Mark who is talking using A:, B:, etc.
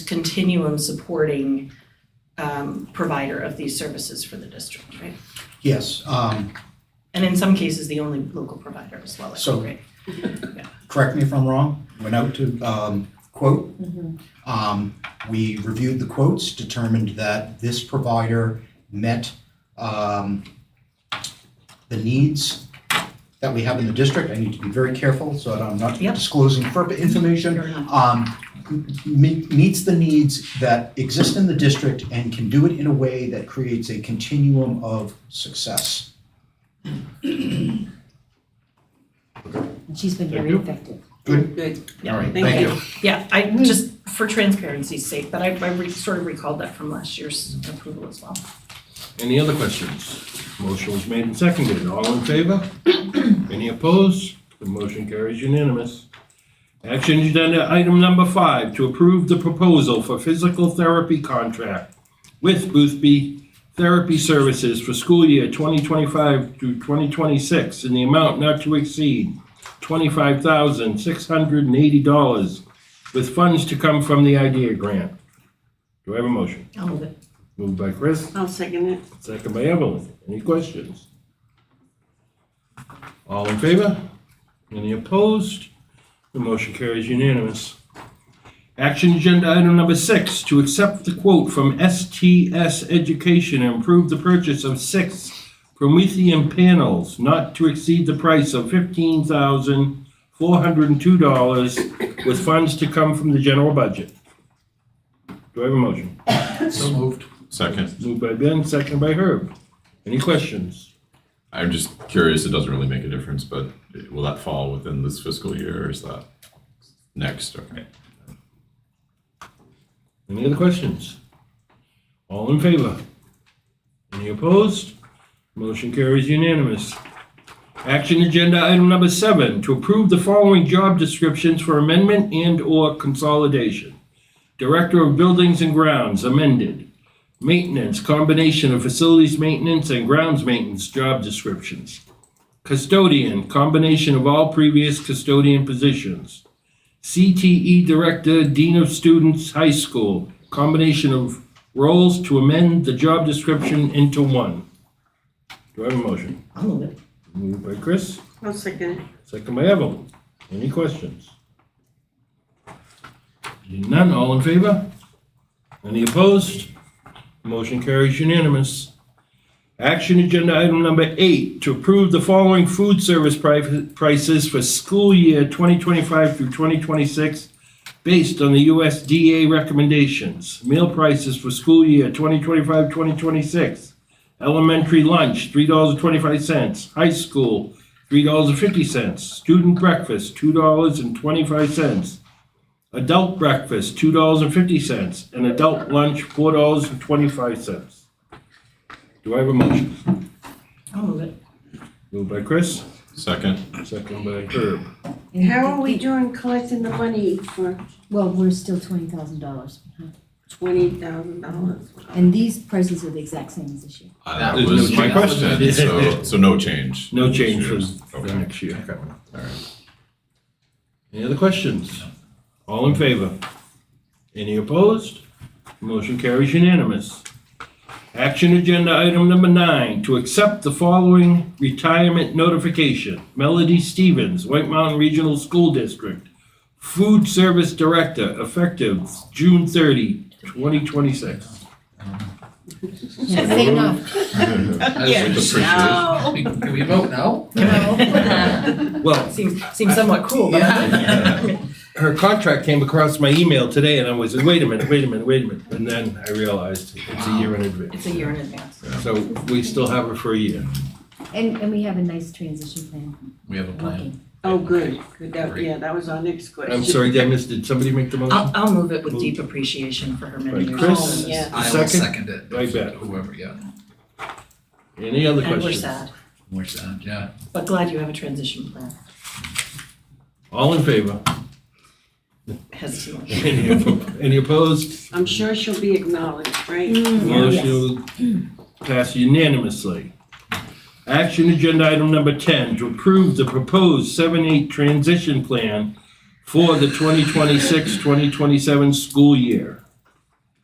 A: continuum supporting um, provider of these services for the district, right?
B: Yes, um,
A: And in some cases, the only local provider as well, I
B: So-
A: think, right?
B: correct me if I'm wrong, went out to, um, quote. Um, we reviewed the quotes, determined that this provider met, um, the needs that we have in the district. I need to be very careful so that I'm not
A: Yep.
B: disclosing FERPA information.
A: Fair enough.
B: um, me- meets the needs that exist in the district and can do it in a way that creates a continuum of success.
C: And she's been
D: Thank
C: very
D: you.
C: effective.
B: Good?
E: Good.
A: Yeah.
B: All right,
E: Thank
B: thank you.
A: Yeah, I, just for transparency's sake, but I, I re- sort of recalled that from last year's approval as well.
D: Any other questions? Motion was made and seconded. All in favor? Any opposed? The motion carries unanimous. Action agenda item number five, to approve the proposal for physical therapy contract with Boothby Therapy Services for school year 2025 through 2026 in the amount not to exceed $25,680 with funds to come from the IDEA grant. Do I have a motion?
A: I'll move it.
D: Moved by Chris,
E: I'll second it.
D: Second by Evelyn. Any questions? All in favor? Any opposed? The motion carries unanimous. Action agenda item number six, to accept the quote from STS Education and approve the purchase of six Promethean panels not to exceed the price of fifteen thousand four hundred and two dollars with funds to come from the general budget. Do I have a motion?
B: So moved.
F: Second.
D: Moved by Ben, second by Herb. Any questions?
F: I'm just curious, it doesn't really make a difference, but will that fall within this fiscal year or is that next? Okay.
D: Any other questions? All in favor? Any opposed? Motion carries unanimous. Action agenda item number seven, to approve the following job descriptions for amendment and/or consolidation. Director of Buildings and Grounds amended. Maintenance, combination of facilities maintenance and grounds maintenance job descriptions. Custodian, combination of all previous custodian positions. CTE E Director, Dean of Students, High School, combination of roles to amend the job description into one. Do I have a motion?
A: I'll move it.
D: Moved by Chris,
E: I'll second it.
D: second by Evelyn. Any questions? Seeing None, all in favor? Any opposed? Motion carries unanimous. Action agenda item number eight, to approve the following food service pri- prices for school year 2025 through 2026 based on the USDA recommendations. Meal prices for school year 2025-2026. Elementary lunch, $3.25. High school, $3.50. Student breakfast, $2.25. Adult breakfast, $2.50. And adult lunch, $4.25. Do I have a motion?
A: I'll move it.
D: Moved by Chris,
F: Second,
D: second by Herb.
C: And
E: How are we
C: the-
E: doing collecting the money for
C: Well, we're still twenty thousand dollars behind.
E: twenty thousand dollars?
C: And these prices are the exact same as this year.
F: Uh,
D: That
F: that
D: was
F: was
D: no
F: my
D: change.
F: question, so, so no change.
D: No change for for
F: Okay,
D: next year.
F: all right.
D: Any other questions? All in favor? Any opposed? Motion carries unanimous. Action agenda item number nine, to accept the following retirement notification. Melody Stevens, White Mountain Regional School District, Food Service Director, effective June 30, 2026.
C: Yeah, say enough.
F: With appreciation.
E: No.
G: Can we vote now?
D: Well,
A: Seems, seems somewhat cool, but.
D: her contract came across my email today and I was, wait a minute, wait a minute, wait a minute. And then I realized it's a year in advance.
A: It's a year in advance.
D: So we still have her for a year.
C: And, and we have a nice transition plan
G: We have a plan.
C: working.
E: Oh, good, good, that, yeah, that was our next question.
D: I'm sorry, I missed, did somebody make the motion?
A: I'll, I'll move it with deep appreciation for her many
D: Right,
A: years.
D: Chris?
A: Oh, yeah.
G: I will
D: Second?
G: second it.
D: I bet.
G: Whoever, yeah.
D: Any other
A: And we're
D: questions?
A: sad,
G: Where's that? uh, Yeah.
A: but glad you have a transition plan,
D: All in favor?
A: hesitantly.
D: Any oppo- any opposed?
E: I'm sure she'll be acknowledged, right?
D: Mm. Motion will pass unanimously. Action agenda item number 10, to approve the proposed 7-8 transition plan for the 2026-2027 school year.